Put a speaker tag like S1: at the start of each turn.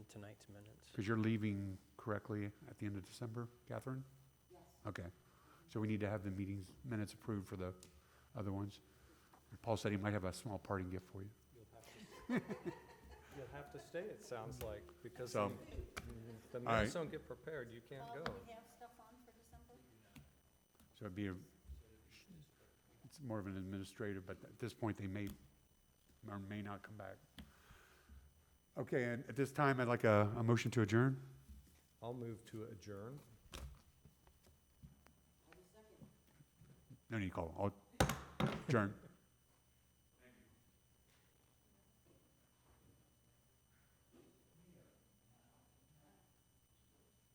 S1: It's minutes.
S2: Because you're leaving correctly at the end of December, Catherine? Yes. Okay. So we need to have the meetings minutes approved for the other ones. Paul said he might have a small parting gift for you.
S1: You'll have to- You'll have to stay, it sounds like, because
S2: So-
S1: the the
S2: All right.
S1: minutes don't get prepared, you can't
S3: Well,
S1: go.
S3: do we have stuff on for December?
S2: So it'd be, a it's more of an administrative, but at this point, they may, or may not come back. Okay, and at this time, I'd like a, a motion to adjourn.
S1: I'll move to adjourn.
S2: No need to call, I'll adjourn.